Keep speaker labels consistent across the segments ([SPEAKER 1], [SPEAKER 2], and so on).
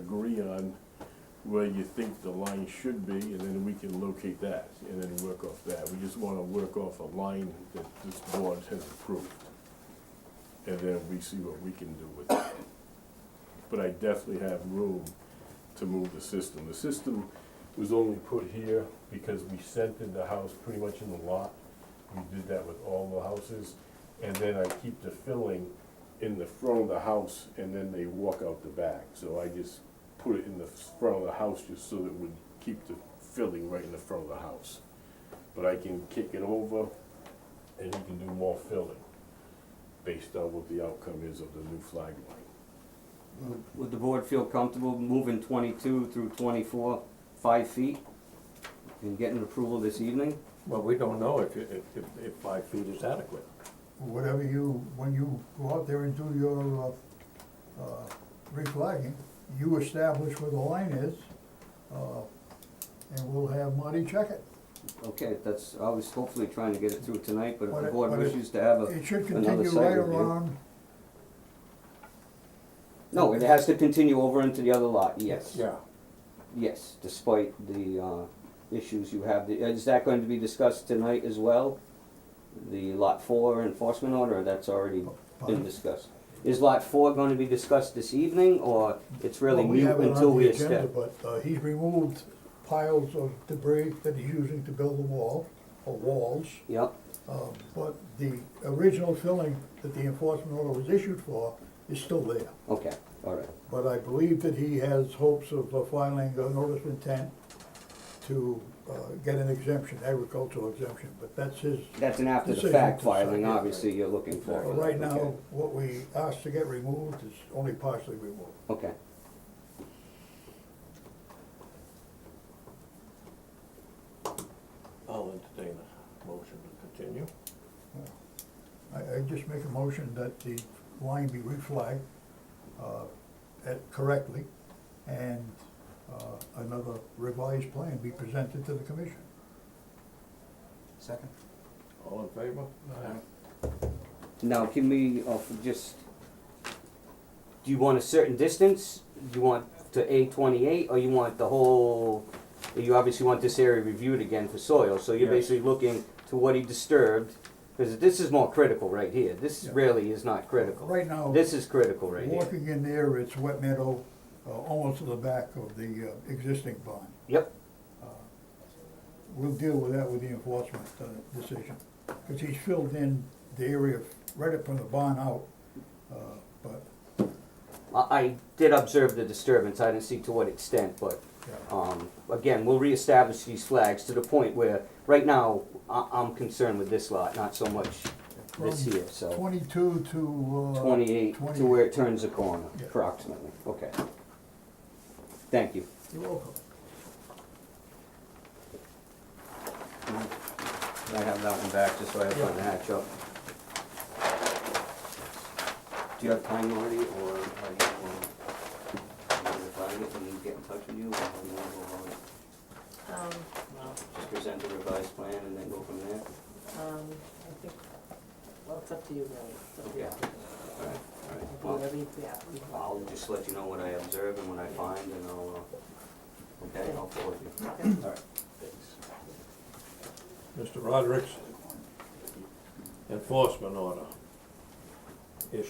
[SPEAKER 1] on where you think the line should be, and then we can locate that, and then work off that. We just wanna work off a line that this board has approved. And then we see what we can do with it. But I definitely have room to move the system. The system was only put here because we centered the house pretty much in the lot. We did that with all the houses, and then I keep the filling in the front of the house, and then they walk out the back. So I just put it in the front of the house just so that it would keep the filling right in the front of the house. But I can kick it over, and he can do more filling, based on what the outcome is of the new flag line.
[SPEAKER 2] Would- Would the board feel comfortable moving twenty-two through twenty-four, five feet? And getting approval this evening?
[SPEAKER 3] Well, we don't know if, if, if- if five feet is adequate.
[SPEAKER 4] whatever you, when you go out there and do your, uh, uh, reflagging, you establish where the line is, uh, and we'll have Marty check it.
[SPEAKER 2] Okay, that's, I was hopefully trying to get it through tonight, but if the
[SPEAKER 4] What-
[SPEAKER 2] board
[SPEAKER 4] what if-
[SPEAKER 2] wishes to have a,
[SPEAKER 4] It should
[SPEAKER 2] Uh, another
[SPEAKER 4] continue
[SPEAKER 2] site
[SPEAKER 4] right
[SPEAKER 2] review.
[SPEAKER 4] around,
[SPEAKER 2] No, it has to continue over into the other lot, yes.
[SPEAKER 3] Yeah.
[SPEAKER 2] Yes, despite the, uh, issues you have. The- Is that going to be discussed tonight as well? The lot four enforcement order, that's already been discussed. Is lot four gonna be discussed this evening, or it's really
[SPEAKER 4] well, we
[SPEAKER 2] mute
[SPEAKER 4] have it
[SPEAKER 2] until
[SPEAKER 4] on
[SPEAKER 2] we
[SPEAKER 4] the agenda,
[SPEAKER 2] establish?
[SPEAKER 4] but, uh, he's removed piles of debris that he's using to build the wall, or walls.
[SPEAKER 2] Yep,
[SPEAKER 4] Uh, but the original filling that the enforcement order was issued for is still there.
[SPEAKER 2] okay, all right.
[SPEAKER 4] But I believe that he has hopes of uh, filing a notice of intent to uh, get an exemption, agricultural exemption, but that's his.
[SPEAKER 2] That's an after the
[SPEAKER 4] Decision
[SPEAKER 2] fact
[SPEAKER 4] to sign,
[SPEAKER 2] filing,
[SPEAKER 4] yeah, right.
[SPEAKER 2] obviously, you're looking for.
[SPEAKER 4] But Right now, what we asked to get removed is only partially removed.
[SPEAKER 2] Okay.
[SPEAKER 3] I'll entertain a motion to continue.
[SPEAKER 4] I, I just make a motion that the line be reflagged uh, at- correctly and uh, another revised plan be presented to the commission.
[SPEAKER 5] Second?
[SPEAKER 3] All in favor?
[SPEAKER 2] Now, can we, uh, f- just, do you want a certain distance? Do you want to A twenty-eight, or you want the whole, you obviously want this area reviewed again for soil, so you're
[SPEAKER 3] Yes.
[SPEAKER 2] basically looking to what he disturbed, because this is more critical right here, this
[SPEAKER 4] Yeah. Oh.
[SPEAKER 2] really is not critical.
[SPEAKER 4] Right now,
[SPEAKER 2] This is critical right here.
[SPEAKER 4] walking in there, it's wet meadow, uh, almost to the back of the uh, existing barn.
[SPEAKER 2] Yep,
[SPEAKER 4] We'll deal with that with the enforcement uh, decision, because he's filled in the area right up from the barn out, uh, but,
[SPEAKER 2] I, I did observe the disturbance, I didn't see to what extent, but
[SPEAKER 4] yeah.
[SPEAKER 2] Um, again, we'll reestablish these flags to the point where, right now, I, I'm concerned with this lot, not so much this
[SPEAKER 4] From
[SPEAKER 2] here, so.
[SPEAKER 4] Twenty-two to, uh.
[SPEAKER 2] Twenty-eight to
[SPEAKER 4] 28.
[SPEAKER 2] where it turns the corner,
[SPEAKER 4] Yeah.
[SPEAKER 2] approximately, okay. Thank you.
[SPEAKER 4] You're welcome.
[SPEAKER 2] I have that one back, just so I have something to hatch up. Do you have time, Marty, or are you, or, if I get, when you get in touch with you, or how do you wanna go about it?
[SPEAKER 6] Um,
[SPEAKER 2] Just present a revised plan and then go from there?
[SPEAKER 6] um, I think, well, it's up to you really, it's up to you.
[SPEAKER 2] Yeah. Alright, alright.
[SPEAKER 6] Do
[SPEAKER 2] Well,
[SPEAKER 6] Whatever you, yeah, you want.
[SPEAKER 2] I'll just let you know what I observe and what I find, and I'll, uh, okay, I'll forward you. All right.
[SPEAKER 3] Mr. Roderick's enforcement order issue.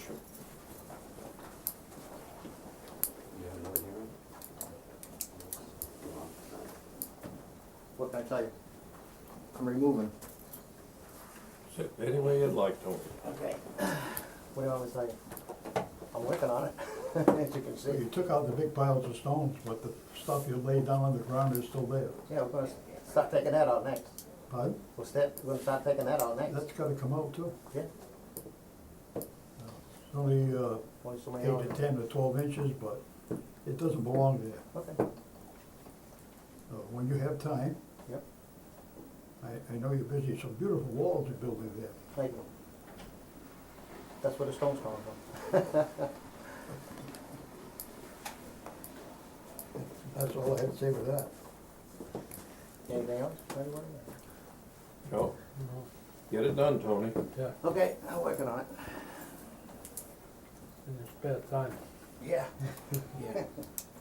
[SPEAKER 2] You have another hearing?
[SPEAKER 5] What can I tell you? I'm removing.
[SPEAKER 3] Sit any way you'd like, Tony.
[SPEAKER 5] Okay. What do you want me to tell you? I'm working on it, as you can
[SPEAKER 4] So you
[SPEAKER 5] see.
[SPEAKER 4] took out the big piles of stones, but the stuff you laid down on the ground is still there.
[SPEAKER 5] Yeah, we're gonna start taking that out next.
[SPEAKER 4] Pardon?
[SPEAKER 5] We'll start, we're gonna start taking that out next.
[SPEAKER 4] That's gotta come out too. Uh,
[SPEAKER 5] Yeah,
[SPEAKER 4] It's only, uh,
[SPEAKER 5] only so many
[SPEAKER 4] eight to
[SPEAKER 5] hours.
[SPEAKER 4] ten to twelve inches, but it doesn't belong there.
[SPEAKER 5] Okay,
[SPEAKER 4] Uh, When you have time,
[SPEAKER 5] yep,
[SPEAKER 4] I, I know you're busy, some beautiful walls are building there.
[SPEAKER 5] thank you. That's where the stone's coming from.
[SPEAKER 4] That's all I had to say with that.
[SPEAKER 5] Anything else, anybody?
[SPEAKER 3] No? Get it done, Tony.
[SPEAKER 7] Yeah,
[SPEAKER 5] Okay, I'm working on it.
[SPEAKER 7] in your spare time.
[SPEAKER 5] Yeah. Yeah.